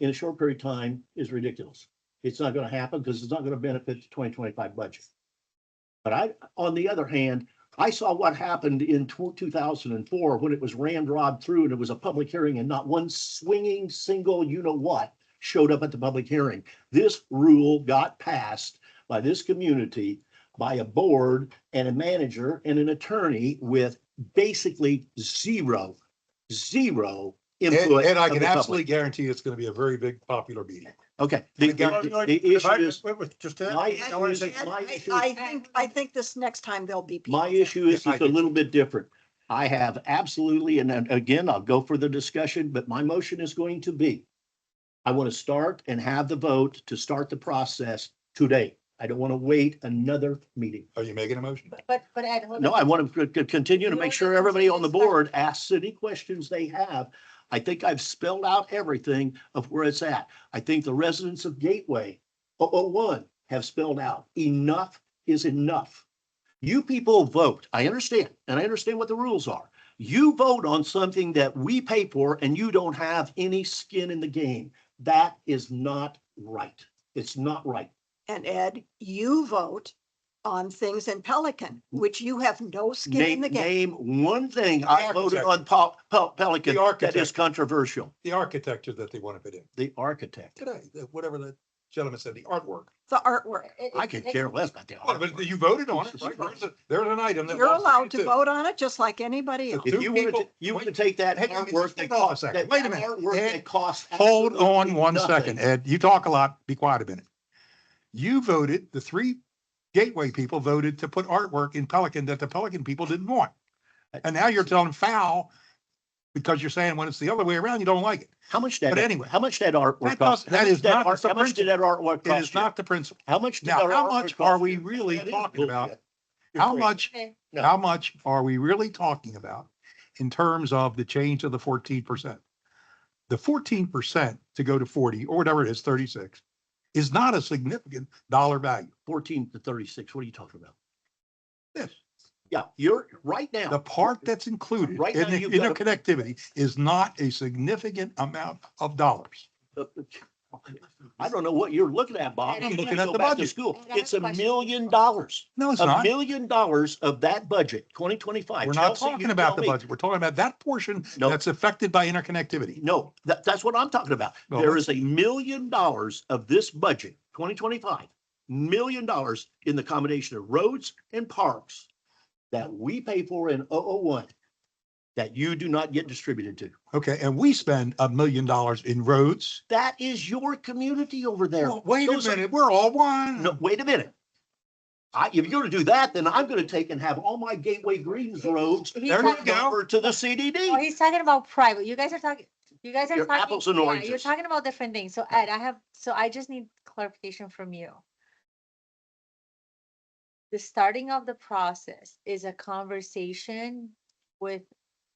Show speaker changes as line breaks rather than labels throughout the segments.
in a short period of time is ridiculous. It's not gonna happen because it's not gonna benefit the twenty twenty-five budget. But I, on the other hand, I saw what happened in two thousand and four when it was ramrod through and it was a public hearing and not one swinging single you-know-what showed up at the public hearing. This rule got passed by this community, by a board and a manager and an attorney with basically zero, zero
And,
input.
and I
of
can
the public.
absolutely guarantee it's gonna be a very big popular meeting.
Okay, the,
Again,
the- the
If
issue
I-
is,
wait, wait, just that-
my
I wanna
issue
say-
is, my
I
issue,
I
is-
think, I think this next time there'll be. people
my
there.
issue is
Yeah, I
it's a
do.
little bit different. I have absolutely, and then again, I'll go for the discussion, but my motion is going to be, I want to start and have the vote to start the process today. I don't want to wait another meeting.
Are you making a motion?
But, but Ed. hold
No,
on.
I want to c- c- continue to
You
make
don't
sure
get to
everybody on the
discuss.
board asks any questions they have. I think I've spelled out everything of where it's at. I think the residents of Gateway 001 have spelled out enough is enough. You people vote. I understand, and I understand what the rules are. You vote on something that we pay for and you don't have any skin in the game. That is not right. It's not right.
And Ed, you vote on things in Pelican, which you have no skin in
Name,
the game.
name one thing I voted
architect.
on Pel- Pel- Pelican that
The
is
architect.
controversial,
The architecture that they want to put in.
the architect.
Today, whatever that gentleman said, the artwork.
The artwork.
It-
I
it-
could
it-
care less about the
Well, but
artwork.
you voted on it, right? There's a- There's an item that.
You're
was
allowed to
voted
vote on it just like anybody else.
If-
If
two
you wanted to,
people-
you
wait,
would take that
hang on,
artwork that
hold on a
cost,
second.
that
Wait a minute.
artwork
Ed,
that costs.
Hold on
absolutely
one second,
nothing.
Ed. You talk a lot. Be quiet a minute. You voted, the three Gateway people voted to put artwork in Pelican that the Pelican people didn't want. And now you're telling foul because you're saying when it's the other way around, you don't like it.
How much that,
But anyway,
how much that artwork
that
cost?
does-
How
that
much
is not
art-
the
How much did that artwork
It is
cost you?
not the principle.
How much? did
Now,
that
how
artwork
much
cost
are we
you?
really
That is
talking about?
bullshit.
How much,
Okay.
No.
how much are we really talking about in terms of the change of the fourteen percent? The fourteen percent to go to forty or whatever it is, thirty-six, is not a significant dollar value.
Fourteen to thirty-six, what are you talking about?
This,
Yeah, you're, right now.
the part that's included
Right
in
now,
the
you've got a-
interconnectivity is not a significant amount of dollars.
I don't know what you're looking at, Bob.
I'm
You
looking
need to
at
go
the
back to
budget.
School.
I have
It's
a
a
question.
million dollars.
No, it's
A
not.
million dollars of that budget, twenty twenty-five.
We're not talking about the budget. We're talking about that portion
No.
that's affected by interconnectivity.
No, that, that's what I'm talking about.
No.
There is a million dollars of this budget, twenty twenty-five, million dollars in the combination of roads and parks that we pay for in 001 that you do not get distributed to.
Okay, and we spend a million dollars in roads.
That is your community over there.
Well, Wait a
Those are-
minute, we're all one.
No, wait a minute. I, if you're gonna do that, then I'm gonna take and have all my Gateway Greens roads
He's
There you
talking-
go.
over to the
Oh,
CDD.
he's talking about private. You guys are talking, you guys are
You're
talking.
apples and
yeah, You're
oranges.
talking about different things. So Ed, I have, so I just need clarification from you. The starting of the process is a conversation with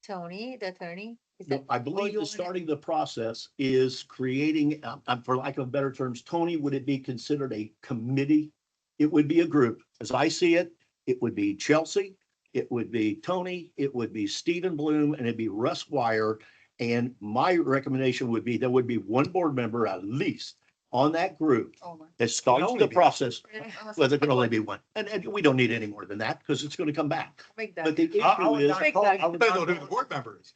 Tony, the attorney? Is that-
I
or
believe
you
the
wanna-
starting the process is creating, um, um, for lack of better terms, Tony, would it be considered a committee? It would be a group. As I see it, it would be Chelsea, it would be Tony, it would be Stephen Bloom, and it'd be Russ Wire. And my recommendation would be there would be one board member at least on that group that starts
only
the
be-
process. Well, there can only be one, and, and we don't need any more than that, because it's gonna come back.
Make that-
But the
I- I
issue
would
is,
not
Big
call-
Doug.
I would
Depends on
not
who the
call-
board member is.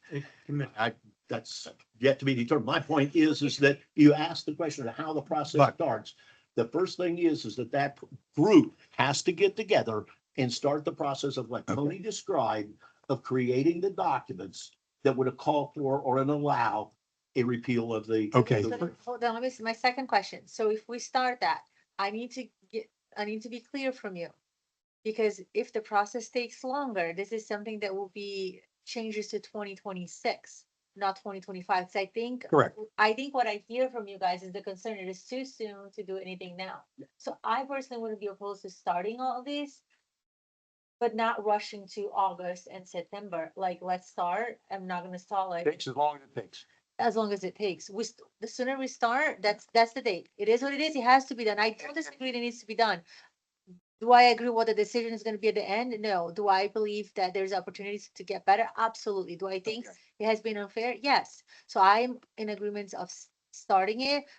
I, that's yet to be determined. My point is, is that you ask the question of how the process
But-
starts. The first thing is, is that that group has to get together and start the process of what
Okay.
Tony described of creating the documents that would call for or allow a repeal of the.
Okay.
the-
So, Hold on, let me, s- my second question. So if we start that, I need to get, I need to be clear from you. Because if the process takes longer, this is something that will be changes to twenty twenty-six, not twenty twenty-five. So I think,
Correct.
I think what I hear from you guys is the concern, it is too soon to do anything now. So I personally wouldn't be opposed to starting all this, but not rushing to August and September. Like, let's start. I'm not gonna stall it
as long as it takes.
as long as it takes. We, st- the sooner we start, that's, that's the date. It is what it is. It has to be done. I don't disagree. It needs to be done. Do I agree what the decision is gonna be at the end? No. Do I believe that there's opportunities to get better? Absolutely. Do I think it has been unfair? Yes. So I'm in agreement of s- starting it,